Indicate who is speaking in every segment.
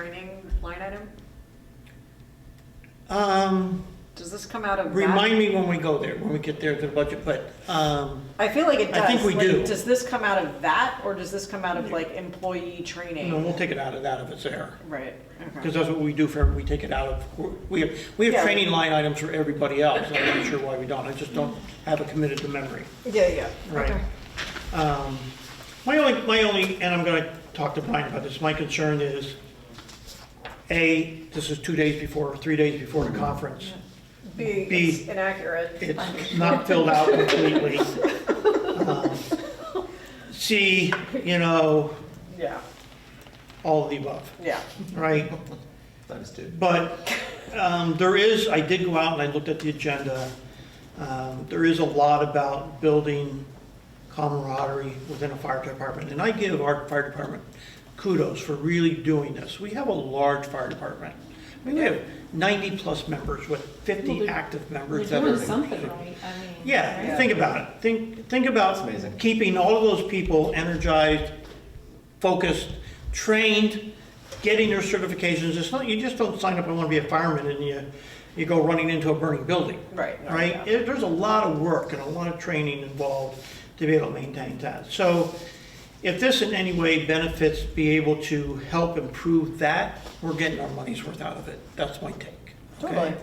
Speaker 1: training line item?
Speaker 2: Um,
Speaker 1: Does this come out of that?
Speaker 2: remind me when we go there, when we get there to the budget, but, um,
Speaker 1: I feel like it does.
Speaker 2: I think we
Speaker 1: Like,
Speaker 2: do.
Speaker 1: Does this come out of that, or does this come out of like employee training?
Speaker 2: no, we'll take it out of that if it's there.
Speaker 1: Right,
Speaker 2: Because
Speaker 1: okay.
Speaker 2: that's what we do for, we take it out of, we have, we have
Speaker 1: Yeah.
Speaker 2: training line items for everybody else. I'm not sure why we don't. I just don't have it committed to memory.
Speaker 1: Yeah, yeah.
Speaker 2: Right.
Speaker 1: Okay.
Speaker 2: Um, My only, my only, and I'm going to talk to Brian about this, my concern is, A, this is two days before, three days before the conference.
Speaker 1: B,
Speaker 2: B.
Speaker 1: it's inaccurate.
Speaker 2: It's not filled out completely. Um, C, you know,
Speaker 1: Yeah,
Speaker 2: all of the above,
Speaker 1: yeah.
Speaker 2: right?
Speaker 3: Times two.
Speaker 2: But um, there is, I did go out and I looked at the agenda. Um, There is a lot about building camaraderie within a fire department. And I give our fire department kudos for really doing this. We have a large fire department. I mean, we have 90-plus members with 50
Speaker 4: Well, they're-
Speaker 2: active
Speaker 4: We're
Speaker 2: members that
Speaker 4: doing
Speaker 2: are.
Speaker 4: something right, I mean.
Speaker 2: Yeah,
Speaker 1: Yeah.
Speaker 2: think about it. Think, think about
Speaker 3: It's amazing.
Speaker 2: keeping all of those people energized, focused, trained, getting their certifications. It's not, you just don't sign up, I want to be a fireman, and you, you go running into a burning building,
Speaker 1: Right. no,
Speaker 2: right?
Speaker 1: yeah.
Speaker 2: It- There's a lot of work and a lot of training involved to be able to maintain that. So if this in any way benefits, be able to help improve that, we're getting our money's worth out of it. That's my take. okay?
Speaker 1: Totally.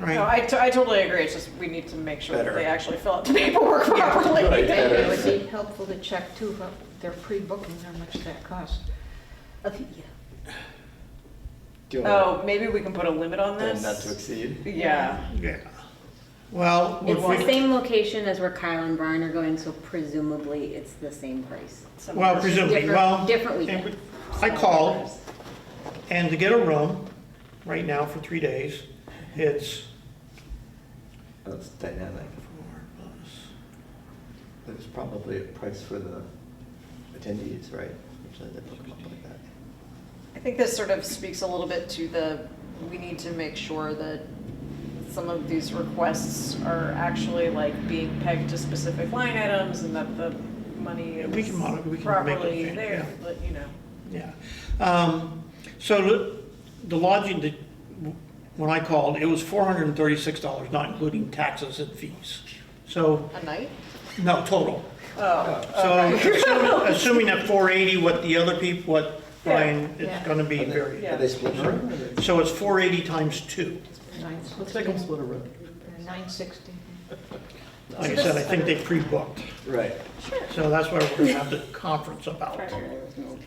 Speaker 2: Right?
Speaker 1: No, I, to- I totally agree. It's just we need to make sure that
Speaker 3: Better.
Speaker 1: they actually fill out the paperwork properly.
Speaker 3: Right,
Speaker 1: Thank
Speaker 3: better.
Speaker 1: you.
Speaker 4: It would be helpful to check too, but they're pre-booking, how much that costs. I think, yeah.
Speaker 3: Do you want
Speaker 1: Oh, maybe we can put a limit on
Speaker 3: to,
Speaker 1: this?
Speaker 3: not to exceed?
Speaker 1: Yeah,
Speaker 2: Yeah. Well, if
Speaker 5: It's the
Speaker 2: we-
Speaker 5: same location as where Kyle and Brian are going, so presumably it's the same price.
Speaker 1: some-
Speaker 2: well, presumably,
Speaker 5: Different-
Speaker 2: well.
Speaker 5: different
Speaker 2: and
Speaker 5: weekend.
Speaker 2: I called, and to get a room, right now for three days, it's
Speaker 3: That's dynamic.
Speaker 2: four plus,
Speaker 3: There's probably a price for the attendees, right? Usually they put them up like that.
Speaker 1: I think this sort of speaks a little bit to the, we need to make sure that some of these requests are actually like being pegged to specific line items and that the money
Speaker 2: Yeah, we
Speaker 1: is
Speaker 2: can monitor- we can make that
Speaker 1: properly
Speaker 2: change,
Speaker 1: there,
Speaker 2: yeah.
Speaker 1: but you know.
Speaker 2: yeah. Um, So the- the lodging, that- when I called, it was four hundred and thirty-six dollars, not including taxes and fees. So,
Speaker 1: A night?
Speaker 2: no, total.
Speaker 1: Oh,
Speaker 2: So assuming- assuming at four eighty, what the other people, what
Speaker 1: Yeah,
Speaker 2: Brian, it's
Speaker 4: yeah.
Speaker 2: gonna be
Speaker 3: Are they-
Speaker 2: very.
Speaker 1: Yeah.
Speaker 3: Are they split a room? or they-
Speaker 2: So it's four eighty times two.
Speaker 4: Nine sixty.
Speaker 3: Looks like a split a room.
Speaker 4: Nine sixty.
Speaker 2: Like I said, I think they pre-booked,
Speaker 3: Right.
Speaker 2: so that's why we're gonna have the conference about.
Speaker 1: okay.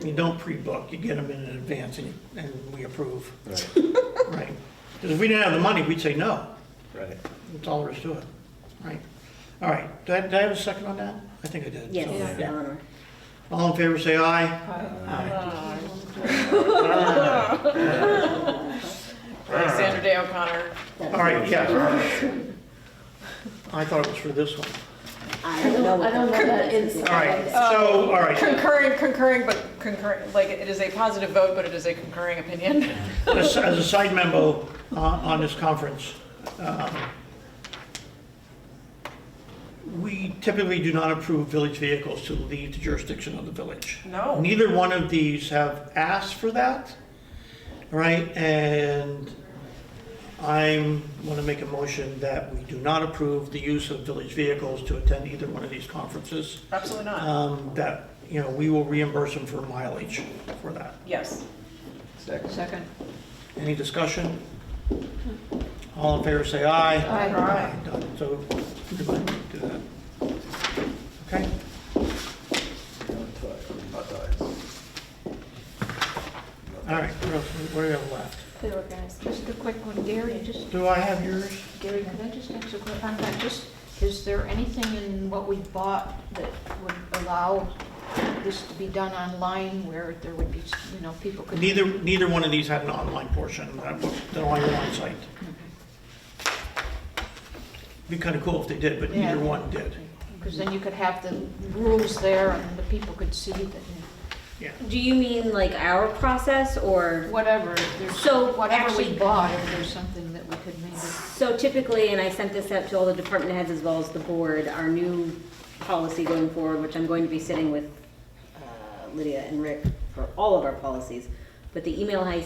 Speaker 2: You don't pre-book, you get them in advance and, and we approve,
Speaker 3: Right.
Speaker 2: right? Because if we didn't have the money, we'd say no,
Speaker 3: Right.
Speaker 2: that's all there is to it, right? All right, did I, did I have a second on that? I think I did. so,
Speaker 5: Yes,
Speaker 2: yeah.
Speaker 5: Eleanor.
Speaker 2: All in favor, say aye.
Speaker 3: Uh,
Speaker 1: Uh,
Speaker 2: All
Speaker 1: Alexander Day O'Connor.
Speaker 2: right, yeah. I thought it was for this one.
Speaker 5: I don't know.
Speaker 4: I don't know that it's-
Speaker 2: All right,
Speaker 1: Oh.
Speaker 2: so, all right,
Speaker 1: Um, Concurring, concurring, but concurring, like, it is a positive vote, but it is a concurring opinion.
Speaker 2: as, as a side memo uh, on this conference, um, we typically do not approve village vehicles to leave the jurisdiction of the village.
Speaker 1: No.
Speaker 2: Neither one of these have asked for that, right? And I want to make a motion that we do not approve the use of village vehicles to attend either one of these conferences.
Speaker 1: Absolutely not.
Speaker 2: Um, That, you know, we will reimburse them for mileage for that.
Speaker 1: Yes.
Speaker 3: Second.
Speaker 4: Second.
Speaker 2: Any discussion? All in favor, say aye.
Speaker 4: Aye.
Speaker 2: Done. So, everybody do that. Okay?
Speaker 3: No toy, hot dogs.
Speaker 2: All right, what else, what do we have left?
Speaker 4: They were guys. Just a quick one, Gary, just,
Speaker 2: Do I have yours?
Speaker 4: Gary, can I just ask a quick, I'm not just, is there anything in what we bought that would allow this to be done online where there would be, you know, people could?
Speaker 2: Neither, neither one of these had an online portion, that was, they're on your own site. Be kind of cool if they did, but neither
Speaker 4: Yeah.
Speaker 2: one did.
Speaker 4: Because then you could have the rules there and the people could see that, you
Speaker 5: Do you mean like our process
Speaker 4: know,
Speaker 5: or,
Speaker 4: whatever, if there's,
Speaker 5: So,
Speaker 4: whatever we
Speaker 5: actually-
Speaker 4: bought, if there's something that we could maybe.
Speaker 5: so typically, and I sent this out to all the department heads as well as the board, our new policy going forward, which I'm going to be sitting with uh, Lydia and Rick for all of our policies, But the email I